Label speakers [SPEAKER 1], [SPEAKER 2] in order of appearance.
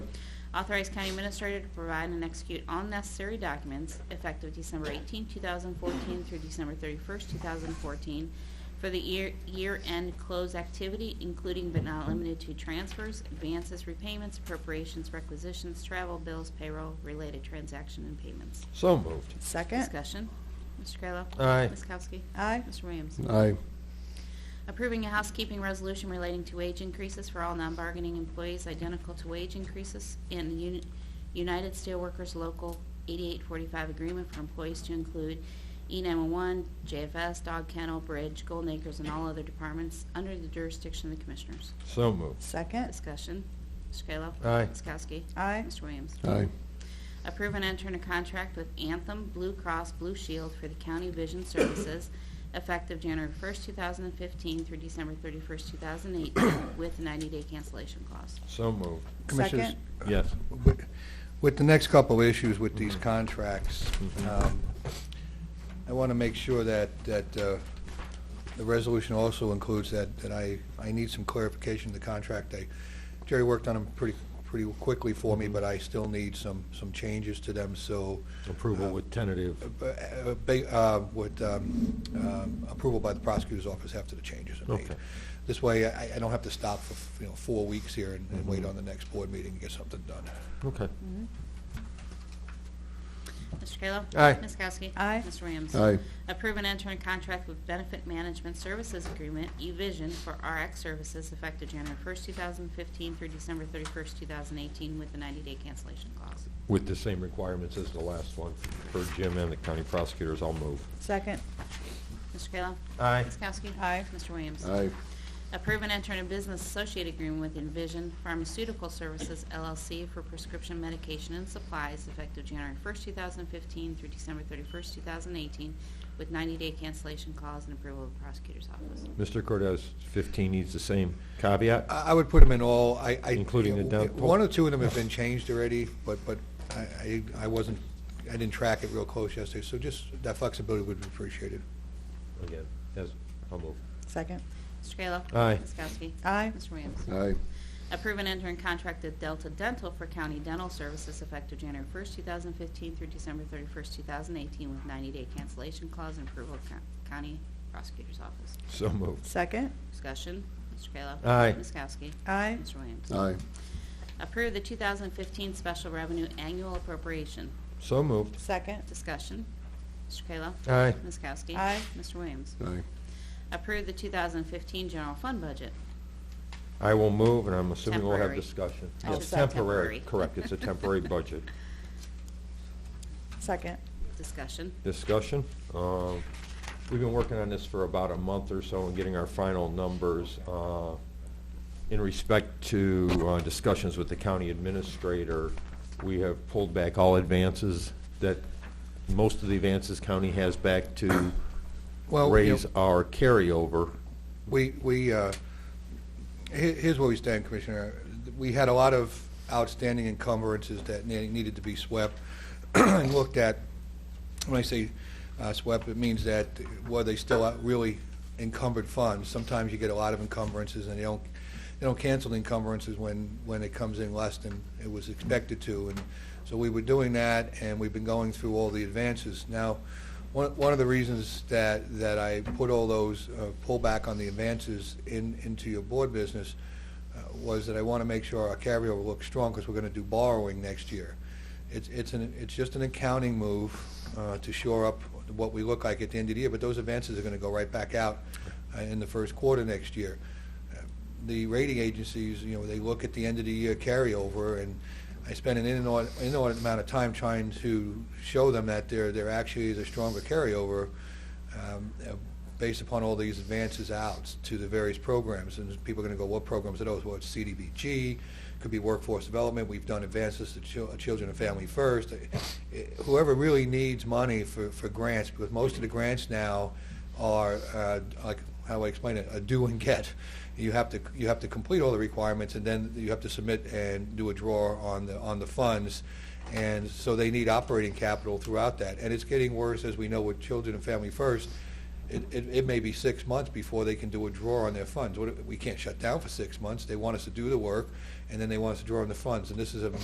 [SPEAKER 1] Authorize County Administrator to provide and execute all necessary documents effective December 18, 2014 through December 31, 2014 for the year- year-end close activity, including but not limited to transfers, advances, repayments, appropriations, requisitions, travel, bills, payroll, related transaction, and payments.
[SPEAKER 2] So moved.
[SPEAKER 3] Second.
[SPEAKER 1] Discussion. Mr. Kayla.
[SPEAKER 2] Aye.
[SPEAKER 1] Ms. Kowski.
[SPEAKER 3] Aye.
[SPEAKER 1] Mr. Williams.
[SPEAKER 2] Aye.
[SPEAKER 1] Approving a housekeeping resolution relating to wage increases for all non-bargaining employees identical to wage increases in the Uni- United Steelworkers Local 8845 agreement for employees to include E E911, JFS, Dog Kennel, Bridge, Golden Acres, and all other departments under the jurisdiction of the Commissioners.
[SPEAKER 2] So moved.
[SPEAKER 3] Second.
[SPEAKER 1] Discussion. Mr. Kayla.
[SPEAKER 2] Aye.
[SPEAKER 1] Ms. Kowski.
[SPEAKER 3] Aye.
[SPEAKER 1] Mr. Williams.
[SPEAKER 2] Aye.
[SPEAKER 1] Approve and enter in a contract with Anthem Blue Cross Blue Shield for the County Vision Services effective January 1st, 2015 through December 31st, 2018 with a 90-day cancellation clause.
[SPEAKER 2] So moved.
[SPEAKER 3] Second.
[SPEAKER 4] Commissioners,
[SPEAKER 2] Yes. Mm-hmm.
[SPEAKER 4] wi- with the next couple of issues with these contracts,
[SPEAKER 2] Mhm.
[SPEAKER 4] um, I want to make sure that, that uh, the resolution also includes that, that I, I need some clarification of the contract. I- Jerry worked on them pretty, pretty quickly for
[SPEAKER 2] Mm-hmm.
[SPEAKER 4] me, but I still need some, some changes to them, so.
[SPEAKER 2] Approval with tentative.
[SPEAKER 4] uh, uh, ba- uh, Would um, um, approval by the prosecutor's office after the changes are made.
[SPEAKER 2] Okay.
[SPEAKER 4] This way, I, I don't have to stop for, you know, four weeks here and and
[SPEAKER 2] Mm-hmm.
[SPEAKER 4] wait on the next board meeting to get something done.
[SPEAKER 2] Okay.
[SPEAKER 1] Mr. Kayla?
[SPEAKER 2] Aye.
[SPEAKER 1] Ms. Kowski?
[SPEAKER 3] Aye.
[SPEAKER 1] Mr. Williams?
[SPEAKER 2] Aye.
[SPEAKER 1] Approve and enter in contract with Benefit Management Services Agreement, eVision, for RX services effective January 1st, 2015 through December 31st, 2018 with a 90-day cancellation clause.
[SPEAKER 2] With the same requirements as the last one for Jim and the county prosecutors, I'll move.
[SPEAKER 3] Second.
[SPEAKER 1] Mr. Kayla?
[SPEAKER 2] Aye.
[SPEAKER 1] Ms. Kowski?
[SPEAKER 3] Aye.
[SPEAKER 1] Mr. Williams? Approve and enter in a business associate agreement with Envision Pharmaceutical Services LLC for prescription medication and supplies effective January 1st, 2015 through December 31st, 2018, with 90-day cancellation clause and approval of the prosecutor's office.
[SPEAKER 2] Mr. Cordez, 15 needs the same caveat?
[SPEAKER 4] I I would put them in all, I, I...
[SPEAKER 2] Including the dump-
[SPEAKER 4] One or two of them have been changed already, but, but I, I I wasn't, I didn't track it real close yesterday, so just that flexibility would be appreciated.
[SPEAKER 2] Again, yes, I'll move.
[SPEAKER 3] Second.
[SPEAKER 1] Mr. Kayla?
[SPEAKER 2] Aye.
[SPEAKER 1] Ms. Kowski?
[SPEAKER 3] Aye.
[SPEAKER 1] Mr. Williams?
[SPEAKER 2] Aye.
[SPEAKER 1] Approve and enter in contract with Delta Dental for county dental services effective January 1st, 2015 through December 31st, 2018, with 90-day cancellation clause and approval of co- county prosecutor's office.
[SPEAKER 2] So moved.
[SPEAKER 3] Second.
[SPEAKER 1] Discussion, Mr. Kayla.
[SPEAKER 2] Aye.
[SPEAKER 1] Ms. Kowski.
[SPEAKER 3] Aye.
[SPEAKER 1] Mr. Williams.
[SPEAKER 2] Aye.
[SPEAKER 1] Approve the 2015 Special Revenue Annual Appropriation.
[SPEAKER 2] So moved.
[SPEAKER 3] Second.
[SPEAKER 1] Discussion, Mr. Kayla.
[SPEAKER 2] Aye.
[SPEAKER 1] Ms. Kowski.
[SPEAKER 3] Aye.
[SPEAKER 1] Mr. Williams.
[SPEAKER 2] Aye.
[SPEAKER 1] Approve the 2015 General Fund Budget.
[SPEAKER 2] I will move, and I'm assuming we'll have
[SPEAKER 1] Temporary.
[SPEAKER 2] discussion.
[SPEAKER 1] I
[SPEAKER 2] Yes,
[SPEAKER 1] should say temporary.
[SPEAKER 2] Correct, it's a temporary budget.
[SPEAKER 3] Second.
[SPEAKER 1] Discussion,
[SPEAKER 2] discussion. Uh, We've been working on this for about a month or so and getting our final numbers. Uh, In respect to uh, discussions with the county administrator, we have pulled back all advances that, most of the advances county has back to
[SPEAKER 4] Well, you
[SPEAKER 2] raise
[SPEAKER 4] know-
[SPEAKER 2] our carryover.
[SPEAKER 4] We, we, uh, he- here's where we stand, Commissioner. We had a lot of outstanding encumbrances that ne- needed to be swept and looked at. When I say uh, swept, it means that were they still out- really encumbered funds? Sometimes you get a lot of encumbrances and they don't, they don't cancel the encumbrances when, when it comes in less than it was expected to. And so we were doing that and we've been going through all the advances. Now, one, one of the reasons that, that I put all those uh, pullback on the advances in, into your board business uh, was that I want to make sure our carryover looks strong because we're going to do borrowing next year. It's, it's an, it's just an accounting move uh, to shore up what we look like at the end of the year, but those advances are going to go right back out uh, in the first quarter next year. Uh, The rating agencies, you know, they look at the end of the year carryover and I spend an inordinate inordinate amount of time trying to show them that there, there actually is a stronger carryover um, uh, based upon all these advances out to the various programs. And people are going to go, what programs are those? Well, it's CDBG, could be workforce development, we've done advances to chil- children and family first. Uh, Whoever really needs money for, for grants, because most of the grants now are, uh, like, how do I explain it, a do and get. You have to, you have to complete all the requirements, and then you have to submit and do a draw on the, on the funds. And so they need operating capital throughout that. And it's getting worse, as we know, with Children and Family First. It, it, it may be six months before they can do a draw on their funds. What if- We can't shut down for six months. They want us to do the work, and then they want us to draw on the funds. And this is a